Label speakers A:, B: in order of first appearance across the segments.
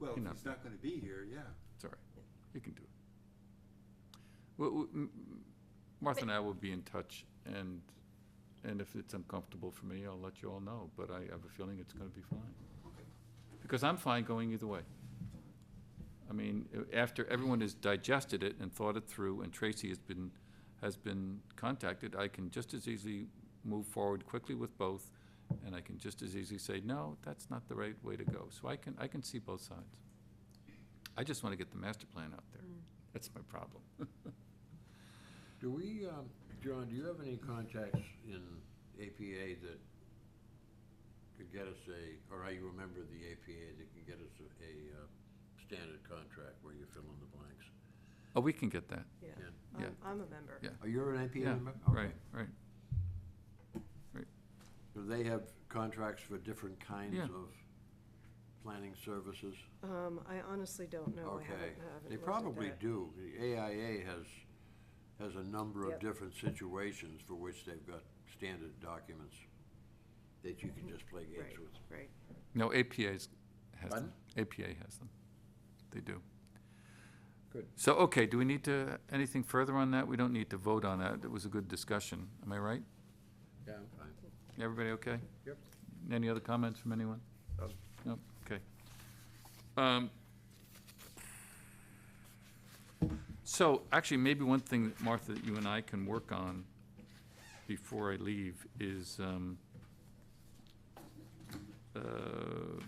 A: can
B: if
A: not
B: he's
A: be.
B: not gonna be here, yeah.
A: It's all right. You can do it. Well, w- m- m- Martha and I will be in touch, and, and if it's uncomfortable for me, I'll let you all know, but I have a feeling it's gonna be fine. Because I'm fine going either way. I mean, a- after everyone has digested it and thought it through, and Tracy has been, has been contacted, I can just as easily move forward quickly with both, and I can just as easily say, no, that's not the right way to go. So I can, I can see both sides. I just want to get the master plan out there. That's my problem.
C: Do we, um, John, do you have any contacts in APA that could get us a, or are you a member of the APA that can get us a, a uh, standard contract where you fill in the blanks?
A: Oh, we can get that.
D: Yeah,
C: Yeah.
A: Yeah.
D: I'm, I'm a member.
A: Yeah.
C: Are you Oh, an APA
A: Yeah,
C: member? Okay.
A: right, right.
C: Do they have contracts for different kinds
A: Yeah.
C: of planning services?
D: Um, I honestly don't know. I haven't,
C: Okay.
D: haven't
C: They
D: looked at
C: probably
D: that.
C: do. The AIA has, has a number of
D: Yep.
C: different situations for which they've got standard documents that you can just play games
D: Right.
C: with.
D: Right.
A: No, APA's has them.
C: Pardon?
A: APA has them. They do.
C: Good.
A: So, okay, do we need to, anything further on that? We don't need to vote on that. It was a good discussion. Am I right?
C: Yeah, I'm fine.
A: Everybody okay?
C: Yep.
A: Any other comments from anyone?
C: Um.
A: No, okay. Um, So, actually, maybe one thing, that Martha, that you and I can work on before I leave is um, uh,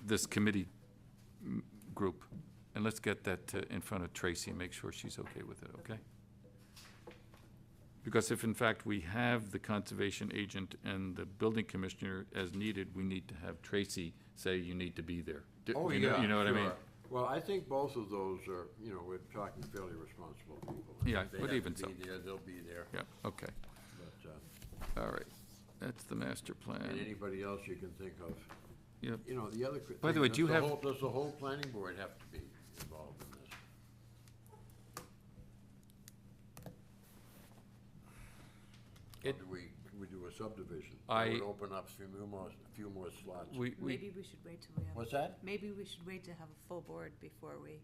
A: this committee m- group. And let's get that uh, in front of Tracy and make sure she's okay with it, okay? Because if in fact we have the conservation agent and the building commissioner as needed, we need to have Tracy say you need to be there. Do-
C: Oh,
A: you know-
C: yeah.
A: You know what I mean?
C: sure. Well, I think both of those are, you know, we're talking fairly responsible people.
A: Yeah,
C: If
A: but even
C: They
A: so.
C: have to be there, they'll be there.
A: Yeah, okay,
C: But, uh,
A: all right. That's the master
C: and
A: plan.
C: anybody else you can think of.
A: Yep.
C: You know, the other. cri-
A: By the
C: thing,
A: way,
C: does
A: do you have-
C: whole- Does the whole planning board have to be involved in this? Or
A: It-
C: do we, we do a subdivision?
A: I-
C: That would open up a few more, a few more slots.
A: We, we,
E: Maybe we should wait till we have,
C: What's that?
E: maybe we should wait to have a full board before we,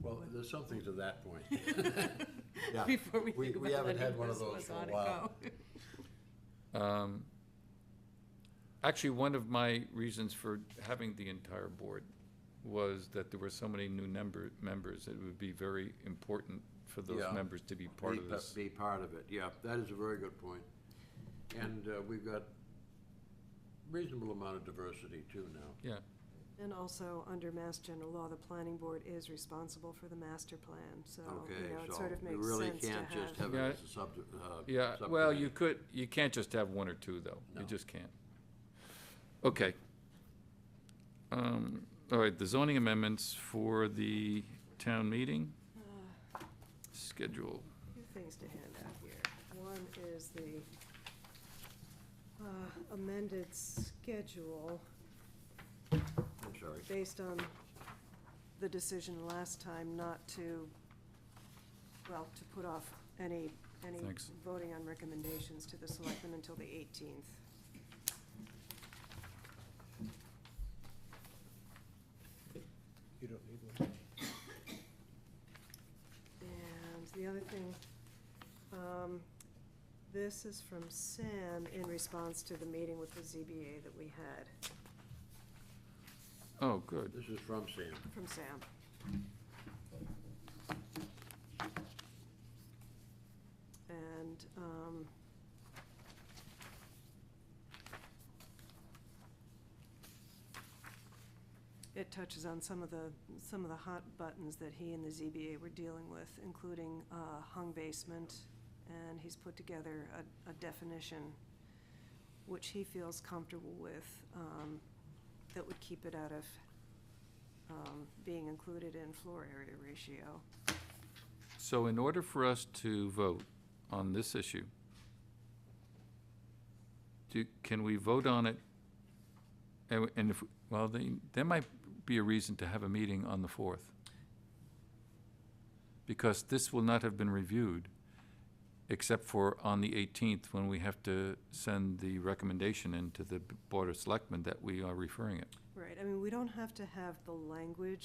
C: Well, there's something to that point. Yeah.
E: before we
C: We-
E: think
C: we
E: about
C: haven't had
E: letting
C: one of
E: this
C: those
E: one
C: for a
E: on and
C: while.
E: go.
A: um, actually, one of my reasons for having the entire board was that there were so many new member, members. It would be very important for those
C: Yeah.
A: members to be part
C: Be
A: of
C: pa-
A: this.
C: Be part of it, yeah, that is a very good point. And uh, we've got reasonable amount of diversity too now.
A: Yeah,
D: And also, under Mass General Law, the planning board is responsible for the master plan, so, you
C: Okay,
D: know, it
C: so
D: sort of
C: we
D: makes
C: really
D: sense to
C: can't just
D: have.
C: have it
A: Yeah.
C: as a sub, uh.
A: yeah, well, you
C: subcommittee.
A: could, you can't just have one or two, though. You
C: No.
A: just can't. Okay. Um, all right, the zoning amendments for the town meeting
D: Uh,
A: schedule.
D: Two things to hand out here. One is the uh, amended schedule
C: I'm sorry.
D: based on the decision last time not to, well, to put off any, any
A: Thanks.
D: voting on recommendations to the selectmen until the eighteenth.
F: You don't need one.
D: And the other thing, um, this is from Sam in response to the meeting with the ZBA that we had,
A: Oh, good.
C: This is from Sam.
D: from Sam. And, um, it touches on some of the, some of the hot buttons that he and the ZBA were dealing with, including uh, hung basement, and he's put together a, a definition which he feels comfortable with, um, that would keep it out of um, being included in floor area ratio.
A: So in order for us to vote on this issue, do, can we vote on it? And and if, well, then, there might be a reason to have a meeting on the fourth. Because this will not have been reviewed, except for on the eighteenth, when we have to send the recommendation into the Board of Selectmen that we are referring it.
D: Right, I mean, we don't have to have the language